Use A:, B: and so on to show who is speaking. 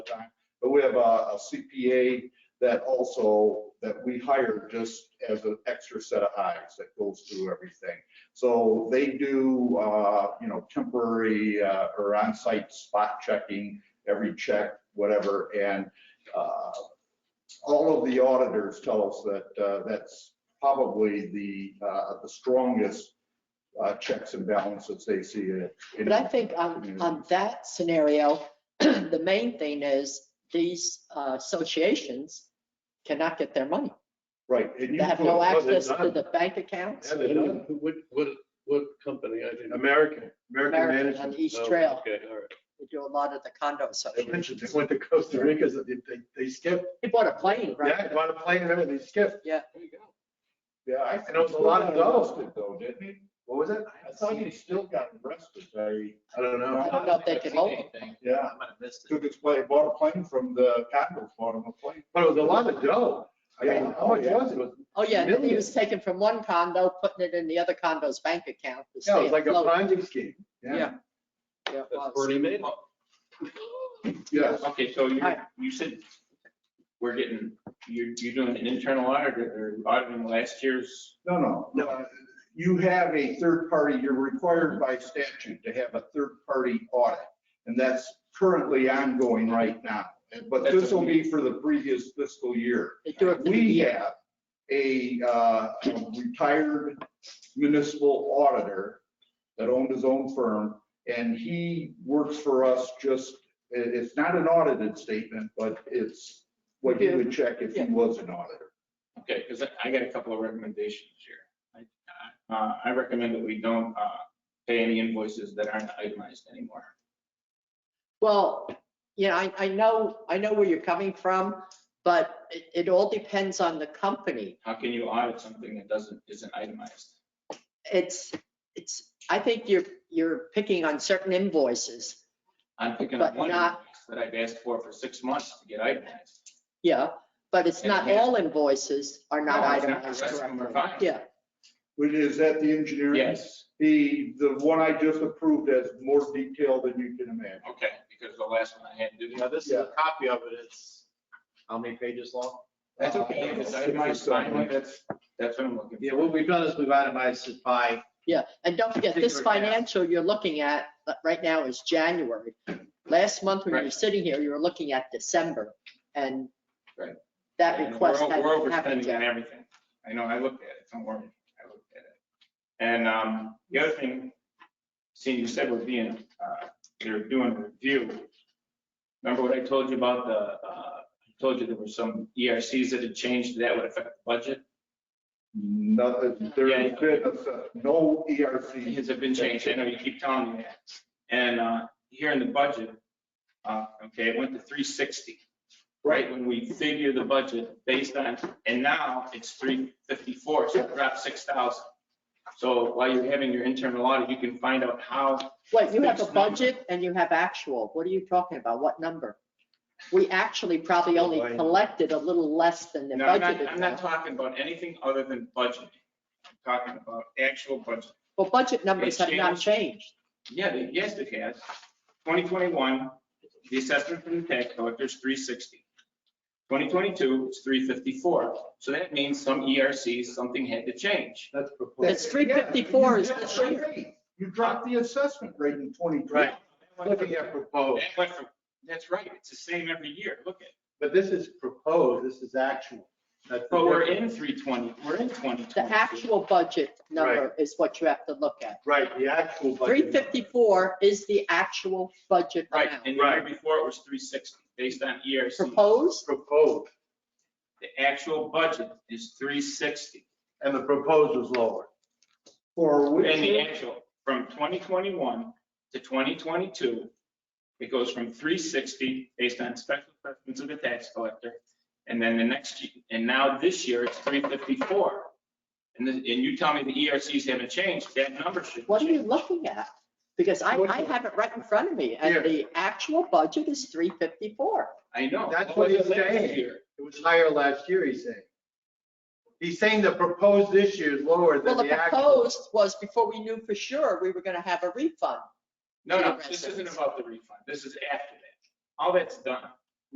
A: the time. But we have a a CPA that also, that we hire just as an extra set of eyes that goes through everything. So they do, uh, you know, temporary uh, or on-site spot checking, every check, whatever. And uh, all of the auditors tell us that uh, that's probably the, uh, the strongest uh, checks and balances they see. in- in-
B: But I think on,
C: Mm-hmm.
A: community.
B: on that scenario, the main thing is these uh, associations cannot get their money.
A: Right. and you
B: They have
A: put-
B: no
C: they're
B: access to
C: not.
B: the bank accounts.
C: Yeah, they do. What, what, what company? I didn't. American,
B: American Management. on East Trail.
C: Okay, all right.
B: They do a lot of the condo
C: They
B: associations.
C: mentioned they went to Costa Rica, so they, they- they skipped.
B: They bought a plane,
C: Yeah,
B: right?
C: bought a plane, and everything, they skipped.
B: Yeah.
A: Yeah. I
C: And
A: think
C: it was a lot of
A: he got
C: dollars.
A: arrested, Though, didn't he?
C: What was it?
A: I thought he still got arrested. I,
C: I don't know.
B: I don't know if they can hold it.
A: yeah,
D: I might have missed it.
A: took his plane, bought a plane from the condos, bought him a plane.
C: But it was a lot of dough. I mean, how much was it? It was-
B: Oh, yeah, and then he
C: Million.
B: was taken from one condo, putting it in the other condo's bank account. to
C: Yeah, it
B: stay
C: was like a
B: afloat.
C: Ponzi scheme.
B: Yeah. Yeah, it
D: That's
B: was.
D: Bernie Madoff.
A: Yes.
E: Okay, so you,
B: Hi.
E: you said we're getting, you're, you're doing an internal audit or auditing last year's,
A: No, no. No. You have a third party, you're required by statute to have a third party audit. And that's currently ongoing right now. But
E: That's a-
A: this will be for the previous fiscal year.
B: They do it for the
A: We
B: year.
A: have a uh, a retired municipal auditor that owned his own firm, and he works for us just, it- it's not an audited statement, but it's what he would check if he
B: Yeah.
A: was an auditor.
E: okay, because I got a couple of recommendations here. I- Uh, I recommend that we don't, uh, pay any invoices that aren't itemized anymore.
B: Well, yeah, I, I know, I know where you're coming from, but it, it all depends on the company.
E: How can you audit something that doesn't, isn't itemized?
B: It's, it's, I think you're, you're picking on certain invoices.
E: I'm picking
B: But
E: up one
B: not-
E: invoice that I've asked for for six months to get itemized.
B: Yeah, but it's
E: And
B: not
E: yeah.
B: all invoices are not
E: No, it's not. The
B: itemized
E: rest of them are
B: correctly.
E: fine.
B: Yeah,
A: But is that the engineering?
E: Yes,
A: The, the one I just approved has more detail than you can imagine.
E: okay, because the last one I had to do.
D: Now, this is a copy of it. It's how many pages long?
E: That's okay, if it's itemized, fine, that's, that's what I'm looking for.
D: Yeah, what we've done is we've itemized it by,
B: yeah. And don't forget, this
D: Particular task.
B: financial you're looking at uh, right now is January. Last month when you were
E: Right.
B: sitting here, you were looking at December and
E: Right.
B: that
E: And we're-
B: request
E: We're
B: hadn't happened
E: overspending on
B: yet.
E: everything. I know, I looked at it, don't worry, I looked at it. And um, the other thing, seeing you said we're being, uh, they're doing a review. Remember what I told you about the, uh, I told you there were some ERCs that had changed, that would affect the budget?
A: Nothing, there has been no E ERC.
E: Things have been changed, I know you keep telling me that. And uh, here in the budget, uh, okay, it went to 360. right, when we figure the budget based on, and now it's three fifty-four, so it dropped six thousand. So while you're having your internal audit, you can find out how,
B: What, you have a
E: fixed number.
B: budget and you have actual. What are you talking about? What number? We actually probably only
C: Right.
B: collected a little less than the
E: no, I'm not,
B: budgeted.
E: I'm not
B: amount.
E: talking about anything other than budgeting. I'm talking about actual budget.
B: Well, budget numbers
E: It
B: have not changed.
E: Yeah, they- yes, it has. Twenty twenty-one, the assessment from the tax collector is three sixty. Twenty twenty-two, it's three fifty-four. So that means some ERCs, something had to change.
C: That's proposed.
B: It's 354 is this
A: Yeah, You dropped the assessment rate in 2020.
C: Right. Looking at proposed,
E: That went from- That's right, it's the same every year, look at it.
C: but this is proposed, this is actual. That's the
E: But we're
C: difference.
E: in three twenty, we're in twenty twenty.
B: The actual budget number is what you have to look at.
C: Right, the actual budget.
B: 354 is the actual budget
E: Right,
B: amount.
E: and the year before it was three sixty, based on ERC.
B: Proposed,
C: Proposed,
E: The actual budget is three sixty,
C: and the proposed was lower.
A: For
E: and
A: which
E: the
A: year?
E: actual, from twenty twenty-one to twenty twenty-two, it goes from three sixty, based on special assessments of the tax collector, and then the next, ye- and now this year it's three fifty-four. And then, and you tell me the ERCs haven't changed, that number should
B: what are you
E: change.
B: looking at? Because I, I have it right in front of me
C: Here.
B: and the actual budget is 354.
E: I know.
C: That's what
E: was
C: he's
E: it last
C: saying.
E: year?
C: It was higher last year, he's saying. He's saying the proposed this year is lower
B: Well,
C: than
B: the
C: the actual.
B: proposed was before we knew for sure we were going to have a refund.
E: No,
B: to the
E: no, this isn't
B: residents.
E: about the refund. This is after that. All that's done.